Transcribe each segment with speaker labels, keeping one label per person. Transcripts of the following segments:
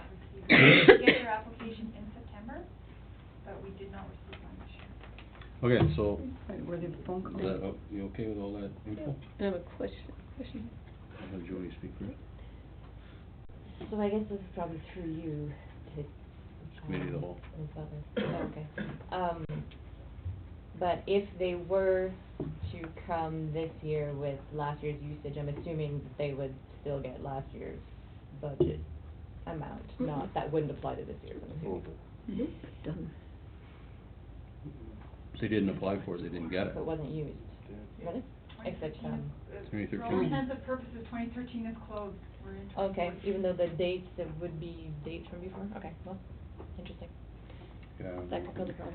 Speaker 1: We get their application in September, but we did not receive one this year.
Speaker 2: Okay, so,
Speaker 3: Were there phone
Speaker 2: is that, oh, you okay with all that info?
Speaker 4: I have a question, question.
Speaker 2: I'll have Jody speak first.
Speaker 5: So I guess this is probably through you to.
Speaker 2: Committee of the whole.
Speaker 5: um, Ms. Butler. Oh, okay. Um, but if they were to come this year with last year's usage, I'm assuming that they would still get last year's budget amount,
Speaker 4: Mhm.
Speaker 5: not, that wouldn't apply to this year, I'm assuming.
Speaker 3: Done.
Speaker 2: If they didn't apply for it, they didn't get it.
Speaker 5: If it wasn't used, really? Except,
Speaker 1: 2013
Speaker 5: um,
Speaker 1: is- uh,
Speaker 2: 2013.
Speaker 1: For all intents and purposes, twenty thirteen is closed, we're in twenty
Speaker 5: Okay,
Speaker 1: fourteen.
Speaker 5: even though the dates, it would be dates from before, okay, well, interesting,
Speaker 2: Yeah.
Speaker 5: that could cause a problem.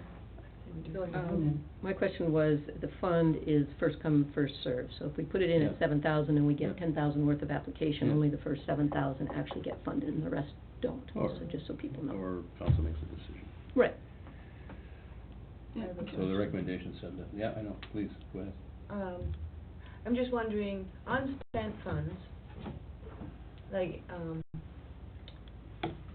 Speaker 4: Um, my question was, the fund is first come, first served, so if we put it in at
Speaker 2: Yeah.
Speaker 4: seven thousand and we
Speaker 2: Yeah.
Speaker 4: get ten thousand worth of application,
Speaker 2: Yeah.
Speaker 4: only the first seven thousand actually get funded and the rest don't,
Speaker 2: Or-
Speaker 4: so just so people know.
Speaker 2: Or council makes a decision.
Speaker 4: Right.
Speaker 2: So the recommendation said that, yeah, I know, please, go ahead.
Speaker 6: Um, I'm just wondering, unspent funds, like, um,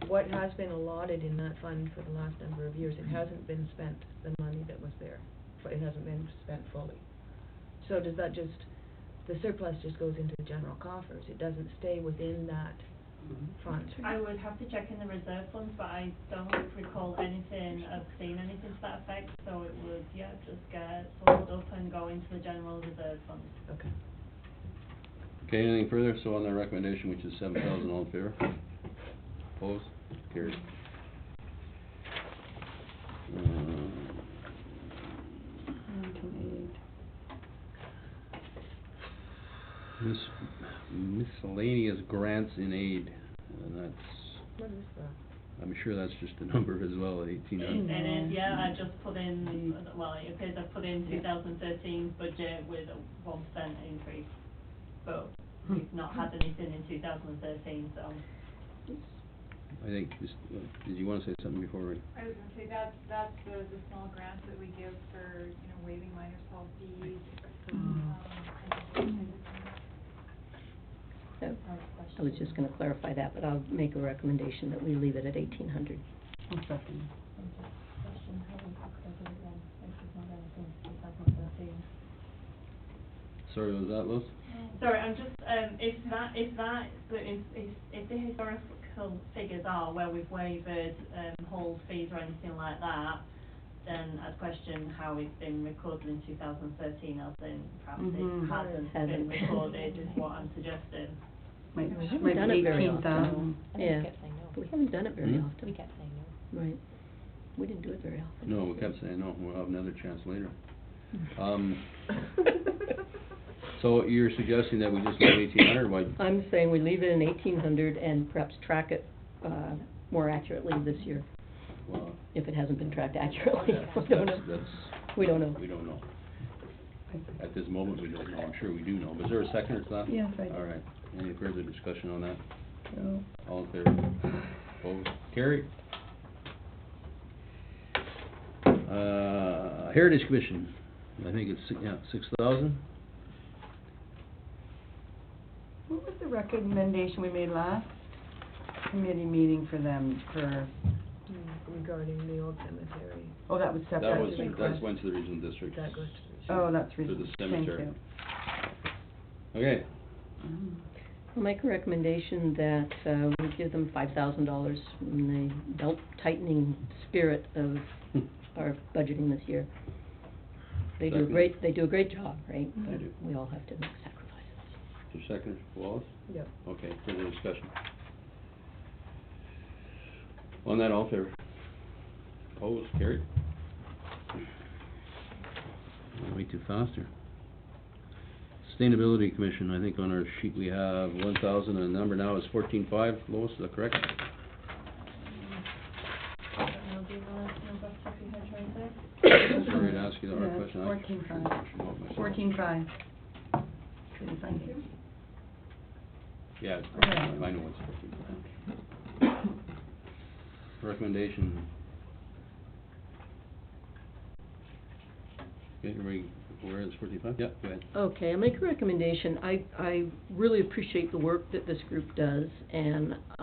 Speaker 6: what has been allotted in that fund for the last number of years? It hasn't been spent, the money that was there, but it hasn't been spent fully. So does that just, the surplus just goes into the general coffers? It doesn't stay within that fund?
Speaker 7: I would have to check in the reserve funds, but I don't recall anything, of seeing anything to that effect, so it would, yeah, just get sold up and go into the general reserve fund.
Speaker 6: Okay.
Speaker 2: Okay, anything further? So on the recommendation, which is seven thousand, all in favor? Opposed? Carried. Um, Mis- miscellaneous grants in aid, and that's,
Speaker 6: What is uh, that?
Speaker 2: I'm sure that's just a number as well, eighteen hundred.
Speaker 7: And it, yeah, I just put in, well, it appears I put in two thousand thirteen budget with a one percent increase, but we've not had anything in two thousand thirteen, so.
Speaker 2: I think, this- did you wanna say something before we?
Speaker 1: I was gonna say, that's, that's the, the small grants that we give for, you know, waiving minor salt fees.
Speaker 5: Mm.
Speaker 1: um, and-
Speaker 4: So, I was just gonna clarify that, but I'll make a recommendation that we leave it at eighteen hundred.
Speaker 2: Sorry, was that Liz?
Speaker 7: Sorry, I'm just, um, if that, if that, so if, if, if the historical figures are where we've waived, um, hold fees or anything like that, then I'd question how it's been recorded in two thousand thirteen, as in perhaps
Speaker 3: Mhm.
Speaker 7: it Mm-hmm. hasn't been
Speaker 4: Hasn't.
Speaker 7: recorded, is what I'm suggesting.
Speaker 3: Might,
Speaker 4: We haven't
Speaker 3: might
Speaker 4: done
Speaker 3: be
Speaker 4: it very
Speaker 3: eighteen
Speaker 4: often.
Speaker 3: thousand.
Speaker 5: I think
Speaker 4: Yeah.
Speaker 5: we kept saying no.
Speaker 4: But we haven't done it very
Speaker 2: Hmm?
Speaker 4: often.
Speaker 5: We kept saying no.
Speaker 4: Right. We didn't do it very often.
Speaker 2: No, we kept saying, no, we'll have another chance later. Um, Uh, so you're suggesting that we just leave eighteen hundred, why,
Speaker 4: I'm saying we leave it in eighteen hundred and perhaps track it, uh, more accurately this year,
Speaker 2: well,
Speaker 4: if it hasn't been tracked accurately. We don't
Speaker 2: that's,
Speaker 4: know.
Speaker 2: that's.
Speaker 4: We don't know.
Speaker 2: We don't know. At this moment, we don't know, I'm sure we do know, was there a second to that?
Speaker 3: Yes, I did.
Speaker 2: All right, any further discussion on that?
Speaker 3: No.
Speaker 2: All in favor? Opposed? Carried. Uh, Heritage Commission, I think it's, si- yeah, six thousand?
Speaker 3: What was the recommendation we made last committee meeting for them,
Speaker 6: Mm,
Speaker 3: for,
Speaker 6: Regarding the old cemetery,
Speaker 3: oh, that was
Speaker 2: That
Speaker 3: separate?
Speaker 2: was,
Speaker 6: Separate
Speaker 2: that's
Speaker 6: request.
Speaker 2: went to the regional district.
Speaker 6: that goes to the.
Speaker 3: Oh, that's
Speaker 2: For the
Speaker 3: reason, thank
Speaker 2: cemetery.
Speaker 3: you.
Speaker 2: Okay,
Speaker 3: Mm.
Speaker 4: I'll make a recommendation that, uh, we give them five thousand dollars in the belt tightening spirit of our budgeting this year. They do a
Speaker 2: Second.
Speaker 4: great, they do a great job, right?
Speaker 2: They
Speaker 4: But
Speaker 2: do.
Speaker 4: We all have to make sacrifices.
Speaker 2: your second, Wallace?
Speaker 6: Yep.
Speaker 2: Okay, further discussion. On that, all in favor? Opposed, carried. Went Way too fast here. Sustainability Commission, I think on our sheet we have one thousand, and the number now is fourteen-five, Lois, is that correct?
Speaker 7: I don't know, Mm-hmm. do you know, if that's what you had right there?
Speaker 2: Sorry to ask you the hard
Speaker 3: Yeah,
Speaker 2: question. I
Speaker 3: fourteen
Speaker 2: should-
Speaker 3: five.
Speaker 2: should know it myself.
Speaker 3: Fourteen five. Couldn't find it.
Speaker 2: Yeah, it's-
Speaker 3: Okay.
Speaker 2: I know it's fourteen-five. Recommendation. Okay, everybody, where is fourteen-five? Yeah, go ahead.
Speaker 4: Okay, I make a recommendation. I, I really appreciate the work that this group does, and